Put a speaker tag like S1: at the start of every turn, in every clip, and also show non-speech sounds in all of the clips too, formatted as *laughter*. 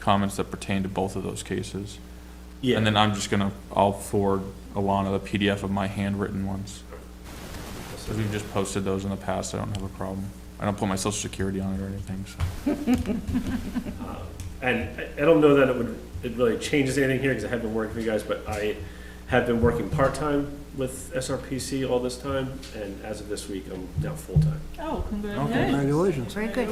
S1: comments that pertain to both of those cases.
S2: Yeah.
S1: And then I'm just gonna, I'll forward Alana the PDF of my handwritten ones. Because we've just posted those in the past, I don't have a problem. I don't put my social security on it or anything, so.
S2: And I- I don't know that it would, it really changes anything here, because I have been working for you guys, but I have been working part-time with SRPC all this time, and as of this week, I'm now full-time,
S3: Oh, congratulations.
S4: Congratulations.
S5: Very good.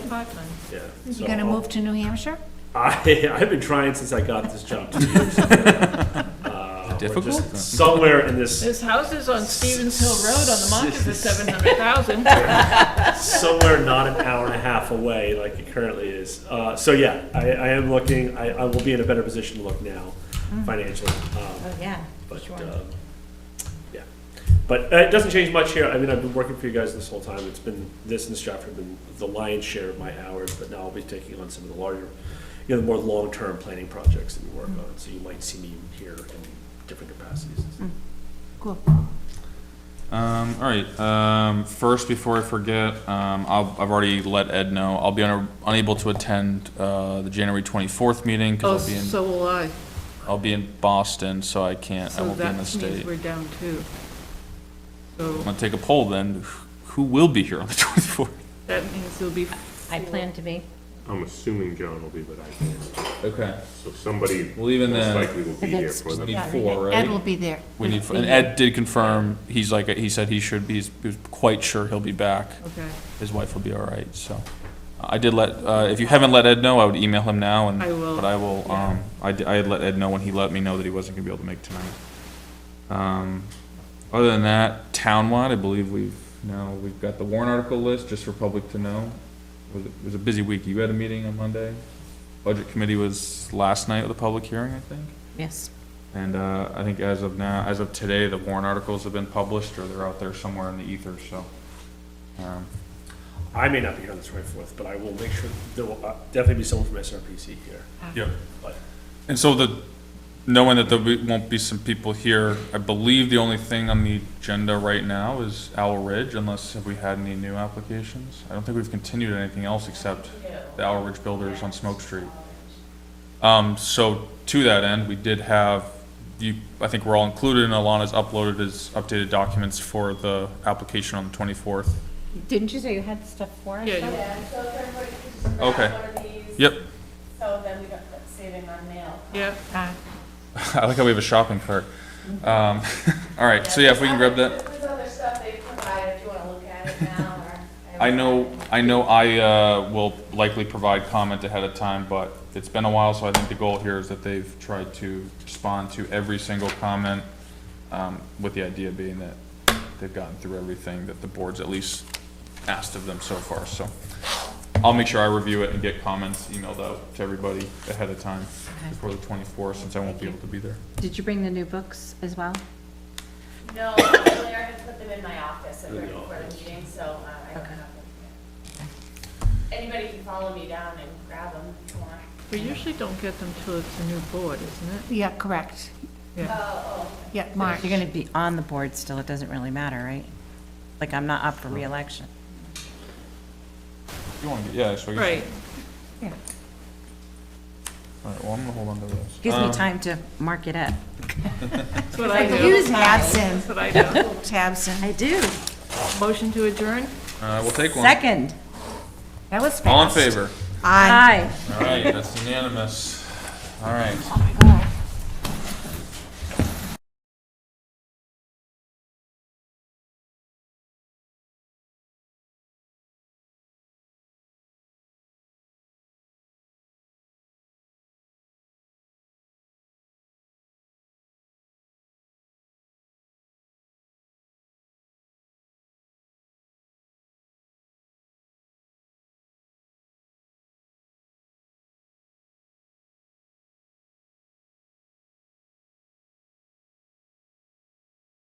S2: yeah. so
S5: You gonna
S2: I'll-
S5: move to New Hampshire?
S2: *laughs* I, I've been trying since I got this job
S1: *laughs*
S2: two years ago. Uh, we're just
S1: Difficult?
S2: Somewhere in this,
S3: There's houses on Stevens Hill Road
S1: *laughs*
S3: on the market for seven hundred thousand.
S2: somewhere not an hour and a half away like it currently is. Uh, so yeah, I, I am looking, I, I will be in a better position to look now financially. Um,
S5: Mm. Oh, yeah.
S2: But,
S5: Sure.
S2: um, yeah, but uh, it doesn't change much here. I mean, I've been working for you guys this whole time. It's been, this and Stratford have been the lion's share of my hours, but now I'll be taking on some of the larger, you know, the more long-term planning projects that we work
S5: Mm.
S2: on. So you might see me here in different capacities.
S5: Mm. Cool.
S1: Um, all right, um, first, before I forget, um, I'll, I've already let Ed know, I'll be un- unable to attend, uh, the January twenty-fourth meeting,
S3: Oh,
S1: because I'll be in,
S3: so will I.
S1: I'll be in Boston, so I can't, I
S3: So
S1: won't be
S3: that
S1: in the state.
S3: means we're down two.
S1: I'm
S3: So
S1: gonna take a poll then, who will be here on the *laughs* twenty-fourth?
S3: that means there'll be,
S5: I plan to be.
S6: I'm assuming John will be, but I can't.
S1: Okay,
S6: So somebody
S1: well, even
S6: most
S1: then,
S6: likely will be here for
S1: Need
S6: them.
S5: Yeah,
S1: four,
S5: Ed
S1: right?
S5: will be there.
S1: we need, and Ed did confirm, he's like, he said he should be, he's he was quite sure he'll be back.
S3: okay,
S1: His wife will be all right, so. I did let, uh, if you haven't let Ed know, I would email him now and.
S3: I will.
S1: But I will, um, I, d- I had let Ed know when he let me know that he wasn't gonna be able to make tonight. Um, other than that, townwide, I believe we've, now, we've got the warrant article list, just for public to know. Was It it was a busy week. You had a meeting on Monday. Budget committee was last night with a public hearing, I think.
S5: Yes.
S1: And, uh, I think as of now, as of today, the warrant articles have been published, or they're out there somewhere in the ether, so. Um,
S2: I may not be here on the twenty-fourth, but I will make sure, there will uh, definitely be someone from SRPC here.
S5: Ah.
S1: yeah.
S2: But
S1: And so the, knowing that there be- won't be some people here, I believe the only thing on the agenda right now is Owl Ridge, unless have we had any new applications? I don't think we've continued anything else except the Owl Ridge Builders on Smoke Street. Um, so to that end, we did have, you, I think we're all included and Alana's uploaded his updated documents for the application on the twenty-fourth.
S5: Didn't you say you had stuff for us?
S3: yeah, you-
S7: Yeah, so if everybody could just grab
S1: Okay.
S7: one of these,
S1: Yep, *laughs*
S7: so then we don't put saving on mail.
S3: yeah.
S5: Ah,
S1: I like how we have a shopping cart. Um, *laughs* all right, so yeah, if we can grab that.
S7: There's other stuff they provide if you wanna look at it now
S1: *laughs*
S7: or.
S1: I know, I know I uh, will likely provide comment ahead of time, but it's been a while, so I think the goal here is that they've tried to respond to every single comment, um, with the idea being that they've gotten through everything that the board's at least asked of them so far, so. I'll make sure I review it and get comments emailed out to everybody ahead of time before the twenty-fourth, since I won't be able to be there.
S5: Did you bring the new books as well?
S7: No, Claire had put them in my office at the
S2: In the
S7: recording meeting, so uh, I don't
S5: Okay.
S7: have them. yet. Anybody can follow me down and grab them if you want.
S3: We usually don't get them till it's a new board, isn't it?
S5: Yeah, correct.
S3: Yeah.
S7: Oh,
S5: Yeah,
S8: Mark,
S5: March.
S8: you're gonna be on the board still, it doesn't really matter, right? Like, I'm not up for reelection.
S1: You wanna, get- yeah, so I guess.
S3: Right,
S5: Yeah.
S1: All right, well, I'm gonna hold on to this.
S8: Gives me
S1: Um,
S8: time to mark it up.
S3: that's what I do.
S5: Use
S3: *laughs*
S5: Tabson.
S3: That's what I do.
S5: Tabson.
S8: I do.
S3: Motion to adjourn?
S1: Uh, we'll take one.
S8: Second.
S5: That was fast.
S1: All in favor?
S5: Aye.
S8: Aye.
S1: All right, that's unanimous. All right.
S5: Oh, my God.